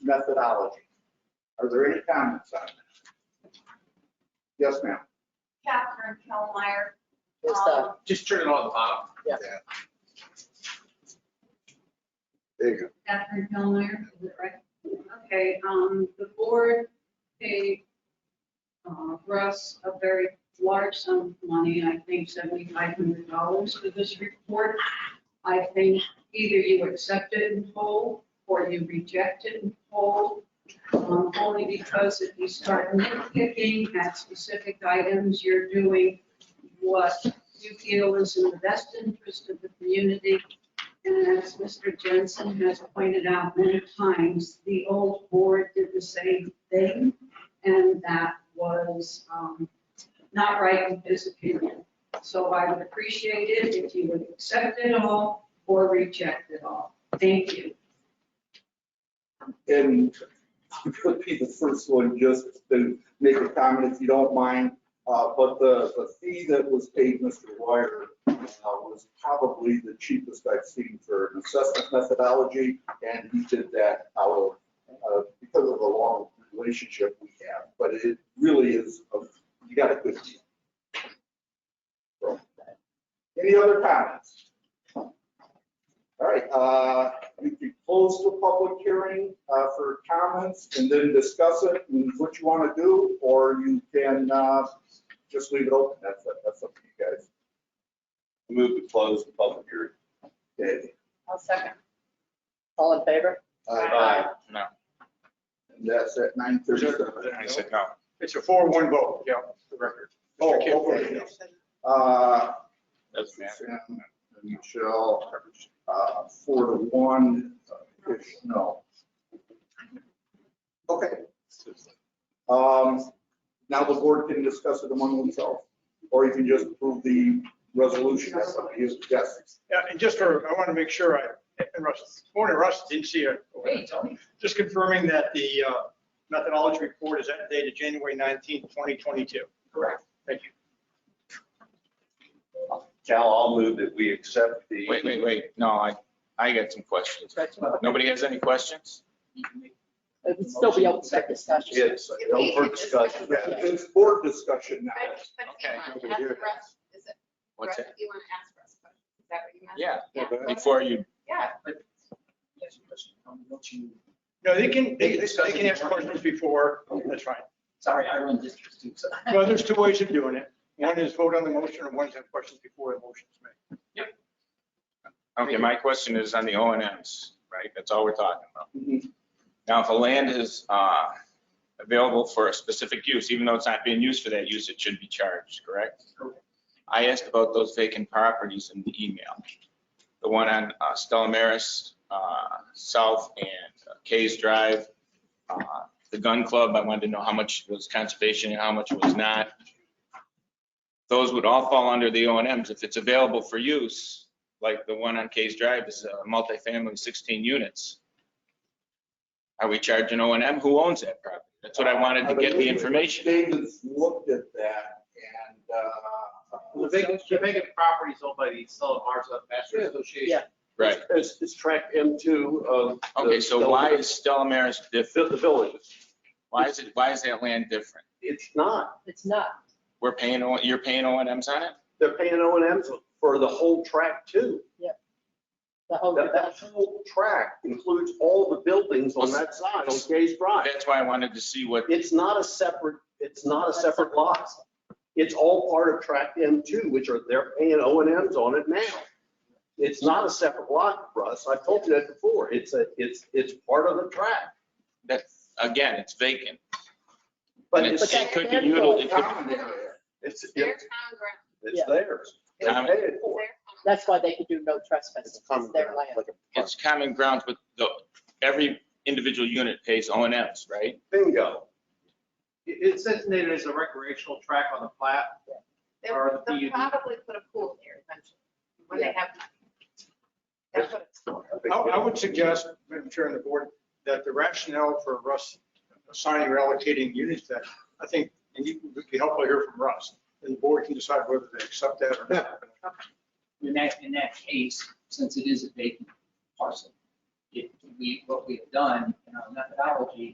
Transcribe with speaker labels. Speaker 1: methodology. Are there any comments on that? Yes, ma'am.
Speaker 2: Catherine Kellmeyer.
Speaker 3: It's the,
Speaker 2: Um,
Speaker 4: Just turn it on the bottom.
Speaker 3: Yeah.
Speaker 1: There you go.
Speaker 2: Catherine Kellmeyer, is it right? Okay, um, the board paid, uh, Russ a very large sum of money, I think seventy-five hundred dollars for this report. I think either you accept it in whole or you reject it in whole. Um, only because if you start nitpicking at specific items, you're doing what you feel is in the best interest of the community and as Mr. Jensen has pointed out many times, the old board did the same thing, and that was um, not right in his opinion. So I would appreciate it if you would accept it all or reject it all. Thank you.
Speaker 1: And you could be the first one just to make a comment if you don't mind. Uh, But the, the fee that was paid Mr. Wire uh, was probably the cheapest I've seen for an assessment methodology. And he did that out of, uh, because of the long relationship we have. But it really is, a- you got a good deal. So, Any other comments? All right, uh, we can close the public hearing uh, for comments and then discuss it and what you want to do, or you can uh, just leave it open. That's, that's up to you guys.
Speaker 5: Move to close the public hearing.
Speaker 1: Okay,
Speaker 2: I'll second.
Speaker 3: all in favor?
Speaker 5: Aye.
Speaker 4: No.
Speaker 1: And that's at nine
Speaker 4: I
Speaker 1: thirty-seven.
Speaker 4: said no. It's a four, one vote, yeah, the record.
Speaker 1: Oh,
Speaker 4: Mr. Kimball.
Speaker 1: okay. Uh,
Speaker 5: That's
Speaker 1: Sam and Michelle, uh, four to one, uh, ish, no. Okay, Um, Now the board can discuss it among themselves, or you can just approve the resolution. That's up to you. Yes.
Speaker 4: Yeah, and just for, I want to make sure I, and Russ, morning Russ, didn't see it.
Speaker 6: Hey, Tony.
Speaker 4: Just confirming that the uh, methodology report is dated January 19th, 2022.
Speaker 6: Correct.
Speaker 4: Thank you.
Speaker 5: Cal, I'll move that we accept the.
Speaker 7: Wait, wait, wait. No, I, I got some questions.
Speaker 3: Discussion.
Speaker 7: Nobody has any questions?
Speaker 3: It would still be open for discussion.
Speaker 5: Yes, no further discussion.
Speaker 1: Yeah, It's board discussion now.
Speaker 7: Okay.
Speaker 8: Is it,
Speaker 7: What's
Speaker 8: Russ,
Speaker 7: that?
Speaker 8: you want to ask Russ questions? Is that what you meant?
Speaker 7: Yeah,
Speaker 8: Yeah.
Speaker 7: before you,
Speaker 8: Yeah.
Speaker 6: Yes, question. Um, Don't you,
Speaker 4: No, they can, they they
Speaker 6: Discuss it.
Speaker 4: can ask questions before, that's fine.
Speaker 6: sorry, I run districts too, so.
Speaker 4: Well, there's two ways of doing it. One is vote on the motion, and one is have questions before the motion is made.
Speaker 7: okay, my question is on the O and Ms, right? That's all we're talking about.
Speaker 1: Mhm.
Speaker 7: Now, if a land is uh, available for a specific use, even though it's not being used for that use, it should be charged, correct?
Speaker 6: Correct.
Speaker 7: I asked about those vacant properties in the email. The one on uh, Stella Maris, uh, South and Case Drive, uh, the gun club, I wanted to know how much was conservation and how much was not. Those would all fall under the O and Ms. If it's available for use, like the one on Case Drive is a multifamily, 16 units. Are we charging O and M? Who owns that property? That's what I wanted to get the information.
Speaker 1: David's looked at that and. uh,
Speaker 9: The biggest, the biggest property is owned by the Sullivan Hartsfield Master Association.
Speaker 3: Yeah.
Speaker 7: Right.
Speaker 9: It's, it's tract M two of. the-
Speaker 7: Okay, so why is Stella Maris
Speaker 9: The,
Speaker 7: different?
Speaker 9: the village.
Speaker 7: Why is it, why is that land different?
Speaker 9: It's not,
Speaker 3: It's not.
Speaker 7: We're paying, O- you're paying O and Ms on it?
Speaker 9: they're paying O and M's for the whole tract too.
Speaker 3: The whole,
Speaker 9: That, that whole tract includes all the buildings on that side, on Gage Drive.
Speaker 7: That's why I wanted to see what,
Speaker 9: It's not a separate, it's not a separate lot. It's all part of tract M two, which are, they're paying O and Ms on it now. It's not a separate lot, Russ. I told you that before. It's a, it's, it's part of the tract.
Speaker 7: that, again, it's vacant.
Speaker 9: But
Speaker 7: And
Speaker 9: it's,
Speaker 3: But
Speaker 7: it
Speaker 3: that-
Speaker 7: could be
Speaker 3: that's
Speaker 7: utilized, it could
Speaker 1: Common area.
Speaker 9: it's,
Speaker 8: Their
Speaker 9: it's
Speaker 8: town ground.
Speaker 3: Yeah.
Speaker 9: it's theirs. They
Speaker 7: Um,
Speaker 9: paid it for it.
Speaker 8: Their town.
Speaker 3: that's why they could do no trespassing. It's their land.
Speaker 7: it's common ground with the, every individual unit pays O and Ms, right?
Speaker 9: Bingo.
Speaker 6: It says that it's a recreational track on the plat. Or
Speaker 8: They'll
Speaker 6: the-
Speaker 8: they'll probably put a pool there eventually, when they have money. That's what it's for.
Speaker 4: I I would suggest, Madam Chair and the board, that the rationale for Russ assigning or allocating units that, I think, and you would be helpful to hear from Russ, and the board can decide whether they accept that or not.
Speaker 6: In that, in that case, since it is a vacant parcel,
Speaker 10: it, we, what we've done in our methodology